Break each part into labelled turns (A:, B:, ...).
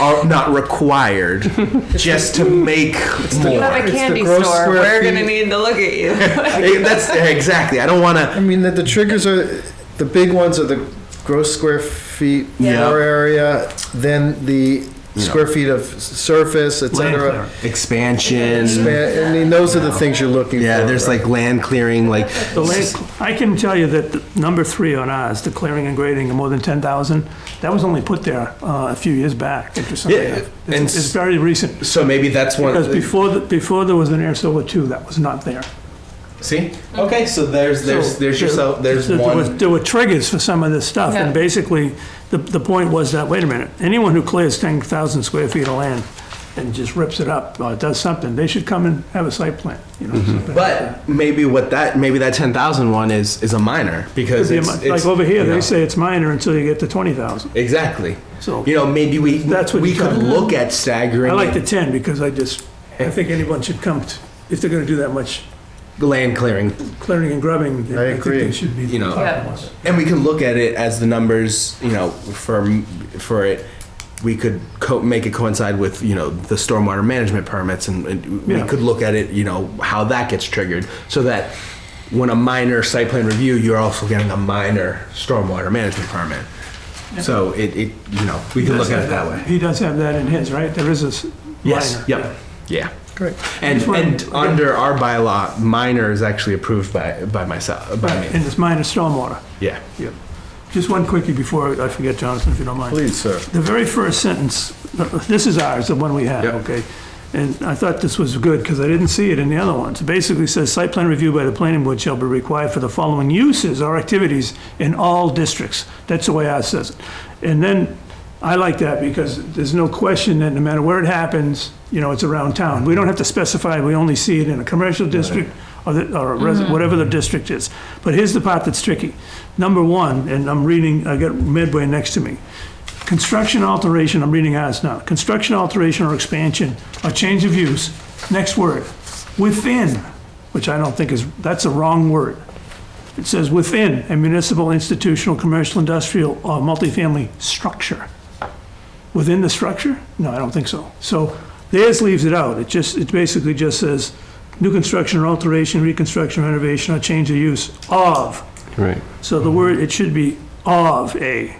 A: are not required just to make
B: You
A: more.
B: have
C: It's the
B: a candy
C: gross
B: store.
C: square
B: We're
C: feet.
B: gonna need to look at you.
A: Eh, That's exactly. I don't want
C: I
A: to.
C: mean, the, the triggers are the big ones are the gross square feet
A: Yeah.
C: floor area, then the square feet of s- surface,
D: Land
C: etc.
D: clearing.
A: Expansion.
C: I mean, those are the things you're looking for.
A: Yeah, there's like land clearing, like
D: The land, I can tell you that the number three on ours, the clearing and grading of more than 10,000, that was only put there uh, a few years back, interestingly
A: Yeah,
D: enough.
A: and
D: It's it's very recent,
A: so maybe that's one.
D: because before, the- before there was an air silver two, that was not there.
A: See, okay, so there's there's
D: So
A: there's
D: there-
A: yourself. There's
D: there- there was-
A: one.
D: There were triggers for some of this stuff, and
B: Yeah.
D: basically, the, the point was that, wait a minute, anyone who clears ten thousand square feet of land and just rips it up, or does something, they should come and have a site plan, you know?
A: Mm-hmm.
D: something like that.
A: But maybe what that maybe that ten thousand one is is a minor because
D: It'd
A: it's,
D: be a mi-
A: it's-
D: Like over
A: you
D: here,
A: know,
D: they say it's minor until you get to twenty thousand,
A: exactly.
D: so.
A: You know, maybe we
D: That's what
A: we
D: you're
A: could
D: trying to-
A: look at staggering
D: I like the
A: it.
D: ten, because I just, I think anyone should come, t- if they're gonna do that much
A: land clearing,
D: clearing and grubbing,
C: I
D: I think
C: agree.
D: they should be
A: You know.
D: talking to
B: Yeah.
D: us.
A: and we can look at it as the numbers. You know, for for it, we could co- make it coincide with you know the stormwater management permits, and, and
D: Yeah.
A: we could look at it. You know how that gets triggered, so that when a minor site plan review, you're also getting a minor stormwater management permit. So it, it you know we can look at it that way.
D: He does have that in his, right? There is a s- minor.
A: Yes. Yep. Yeah.
C: Correct.
A: And,
D: Just wanted-
A: and under our bylaw, minor is actually approved by, by myself, by
D: Right,
A: me.
D: and it's minor stormwater.
A: Yeah.
D: Yep. Just one quickie before I forget, Jonathan, if you don't mind.
C: Please, sir.
D: The very first sentence, this is ours, the one we have,
A: Yep.
D: okay? And I thought this was good because I didn't see it in the other ones. It basically says, "Site plan review by the planning board shall be required for the following uses or activities in all districts." That's the way ours says it. And then, I like that because there's no question that no matter where it happens, you know, it's around town. We don't have to specify, we only see it in a commercial district or the, or a res- whatever the district is. But here's the part that's tricky. Number one, and I'm reading, I got Medway next to me. Construction alteration, I'm reading as now, construction alteration or expansion or change of use, next word, within, which I don't think is, that's a wrong word. It says within a municipal, institutional, commercial, industrial, or multifamily structure. Within the structure? No, I don't think so. So theirs leaves it out. It just, it basically just says new construction or alteration, reconstruction, renovation, or change of use of.
E: Right.
D: So the word, it should be of a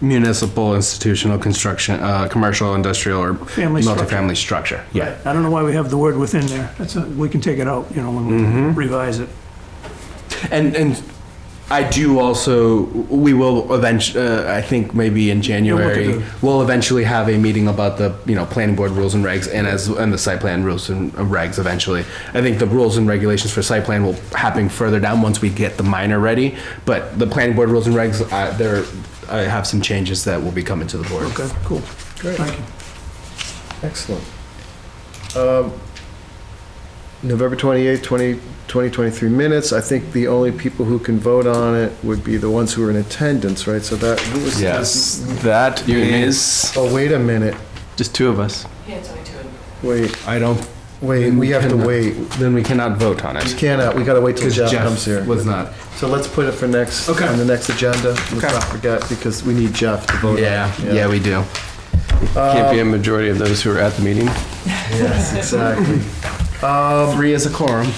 E: Municipal, institutional, construction, uh, commercial, industrial, or
D: Family structure.
E: multifamily structure. Yeah.
D: I don't know why we have the word within there. That's, a- we can take it out, you know, when we revise it.
A: And and I do also we will eventually uh, I think maybe in
D: You'll
A: January
D: look at
E: We'll eventually have a meeting about the, you know, planning board rules and regs and as, and the site plan rules and regs eventually. I think the rules and regulations for site plan will happen further down once we get the minor ready. But the planning board rules and regs, uh, there, I have some changes that will be coming to the board.
D: Okay, cool.
C: Great.
D: Thank you.
C: Excellent. Um, November 28, 20 2023 minutes. I think the only people who can vote on it would be the ones who are in attendance, right? So that, who was?
F: Yes, that is
C: Oh, wait a minute.
F: just two of us.
C: Wait,
A: I don't
C: wait, we have to wait.
E: Then we cannot vote on
C: We
E: it.
C: cannot, we gotta wait till
E: Because
C: Jeff comes here.
E: Jeff was not.
C: So let's put it for next,
A: Okay.
C: on the next agenda. Let's not forget, because we need Jeff to vote. on it.
E: Yeah, yeah, we do.
F: Can't be a majority of those who are at the meeting.
C: Yes, exactly.
E: Um, Three is a quorum.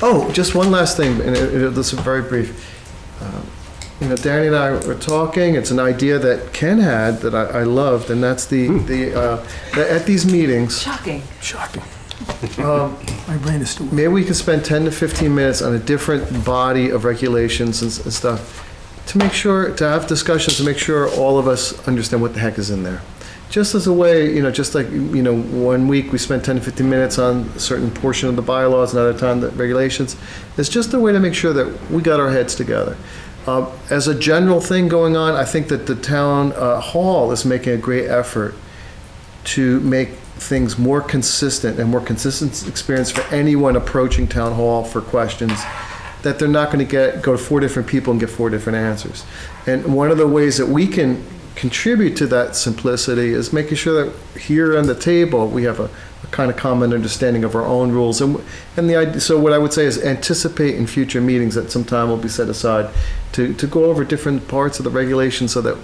C: Oh, just one last thing, and it- it- this is very brief. Um, You know, Danny and I were talking, it's an idea that Ken had that I I loved, and that's the,
E: Hmm.
C: the, uh, that at these meetings,
B: Shocking.
D: Shocking. My brain is still,
C: maybe we could spend 10 to 15 minutes on a different body of regulations and s- and stuff to make sure, to have discussions, to make sure all of us understand what the heck is in there. Just as a way, you know, just like, you know, one week we spent 10 to 15 minutes on a certain portion of the bylaws, another time the regulations. It's just a way to make sure that we got our heads together. Uh, As a general thing going on, I think that the town uh, hall is making a great effort to make things more consistent and more consistent experience for anyone approaching town hall for questions that they're not going to get go to four different people and get four different answers and one of the ways that we can contribute to that simplicity is making sure that here on the table we have a, a kind of common understanding of our own rules and and the idea so what i would say is anticipate in future meetings that some time will be set aside to to go over different parts of the regulation so that